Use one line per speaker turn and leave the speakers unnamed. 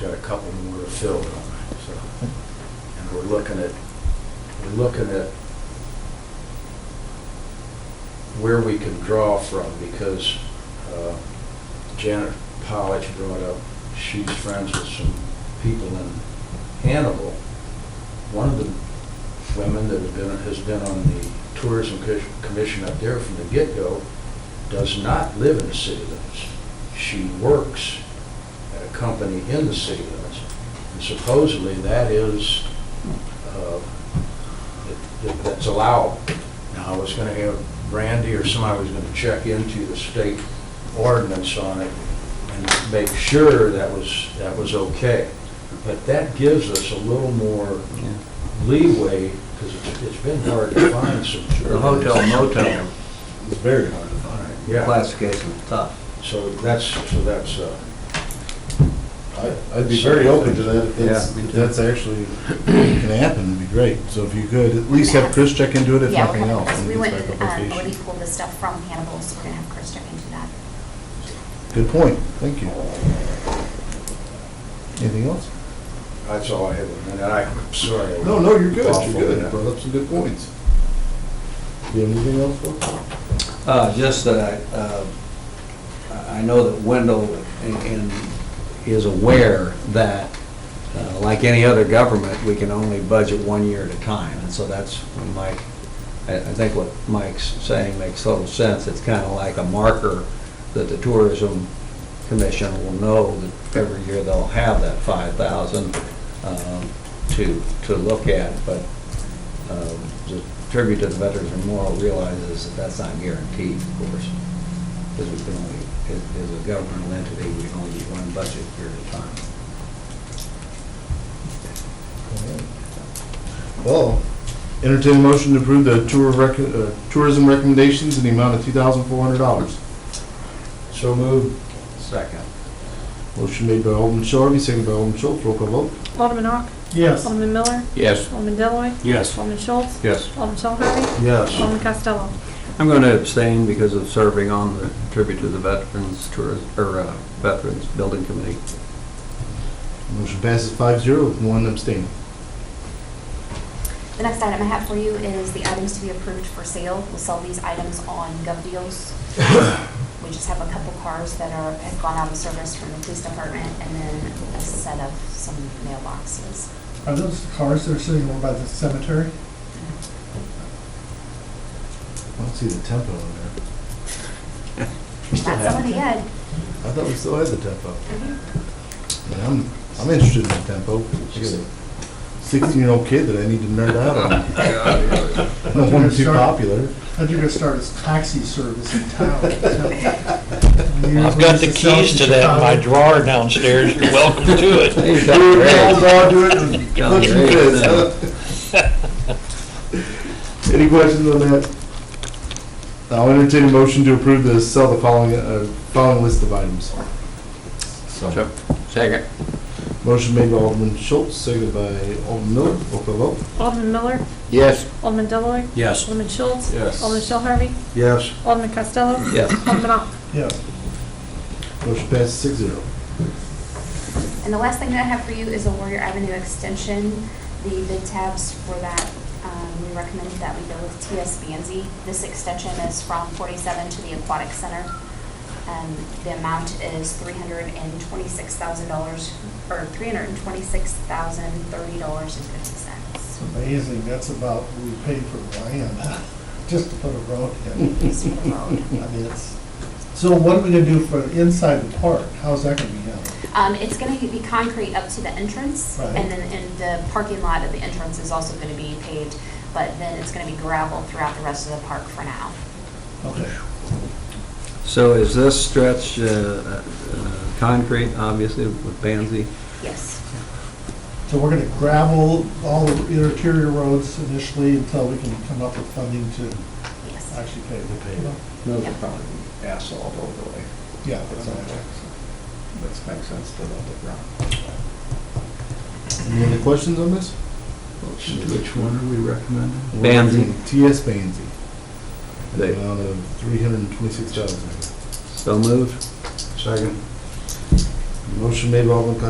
got a couple more to fill on it, so. And we're looking at, we're looking at where we can draw from because uh, Janet Pollich brought up, she's friends with some people in Hannibal. One of the women that has been, has been on the tourism co- commission up there from the get-go does not live in the city limits. She works at a company in the city limits. And supposedly that is, uh, that- that- that's allowable. Now, I was going to have Randy or somebody was going to check into the state ordinance on it and make sure that was, that was okay. But that gives us a little more leeway, because it's, it's been hard to find some.
The hotel motel
It's very hard to find.
Yeah,
classification is tough.
so that's, so that's, uh,
I- I'd be very open to that if that's,
Yeah, me
if
too.
that's actually gonna happen, it'd be great. So if you could, at least have Chris check into it if
Yeah, we'll
nothing
have
else.
Chris.
and
We
get
went,
back on
uh,
location.
already pulled the stuff from Hannibal, so we're gonna have Chris check into that.
Good point, thank you. Anything else?
that's all I have. And I'm sorry. I- Awful, yeah.
brought up some good points. You have anything else, folks?
Uh, just that I, uh, I I know that Wendell and- and is aware that, uh, like any other government, we can only budget one year at a time. And so that's when Mike, I, I think what Mike's saying makes total sense. It's kind of like a marker that the tourism commission will know that every year they'll have that five thousand, um, to, to look at. But, um, the tribute to the Veterans Memorial realizes that that's not guaranteed, of course, because we can only, as as a governmental entity, we can only do one budget year at a time.
Well, entertain a motion to approve the tour rec, uh, tourism recommendations in the amount of two thousand four hundred dollars.
So moved.
Second.
Motion made by Alderman Shelby, second by Alderman Schultz, roll call vote.
Alderman Ock.
Yes.
Alderman Miller.
Yes.
Alderman Deloitte.
Yes.
Alderman Schultz.
Yes.
Alderman Shell Harvey.
Yes.
Alderman Costello.
I'm going to abstain because of serving on the tribute to the Veterans Tourism, or uh, Veterans Building Committee.
Motion passes five zero with one abstaining.
The next item I have for you is the items to be approved for sale. We'll sell these items on GovDeals. We just have a couple cars that are, have gone out of service from the police department, and then a set of some mailboxes.
Are those cars that are sitting over by the cemetery?
I don't see the tempo in there.
That's some of the ed.
I thought we still had the tempo. Man, I'm, I'm interested in the tempo. I got a Sixteen-year-old kid that I need to nerd out on. I don't want to be too popular.
I think you're gonna start a taxi service in town.
I've got the keys to that in my drawer downstairs, you're welcome to it.
Hey,
Put some kids, huh? Any questions on that? I'll entertain a motion to approve the sell the following, uh, following list of items. So,
Second.
motion made by Alderman Schultz, seconded by Alderman Miller, roll call vote.
Alderman Miller.
Yes.
Alderman Deloitte.
Yes.
Alderman Schultz.
Yes.
Alderman Shell Harvey.
Yes.
Alderman Costello.
Yes.
Alderman Ock.
Yes,
Motion passes six zero.
And the last thing that I have for you is a Warrior Avenue extension. The bid tabs for that, um, we recommend that we go with TS Banzi. This extension is from 47 to the Aquatic Center. Um, The amount is $326,000, or $326,030.50.
amazing, that's about, what we paid for land, just to put a road in.
Just for the road.
I mean, it's, so what are we gonna do for inside the park? How's that gonna be handled?
Um, It's going to be concrete up to the entrance,
Right.
and then in the parking lot at the entrance is also going to be paved, but then it's going to be gravel throughout the rest of the park for now.
Okay,
So is this stretch uh, uh, concrete, obviously, with Banzi?
Yes.
so we're gonna gravel all the interior roads initially until we can come up with funding to
Yes.
actually pay the
pave.
Those are probably asphalt overlay.
Yeah.
That's all right. That makes sense to the ground.
Any other questions on this?
Which one are we recommending?
Banzi.
TS Banzi.
They-
The amount of three hundred and twenty-six thousand.
So moved?
Second.
Motion made by Alderman Costello,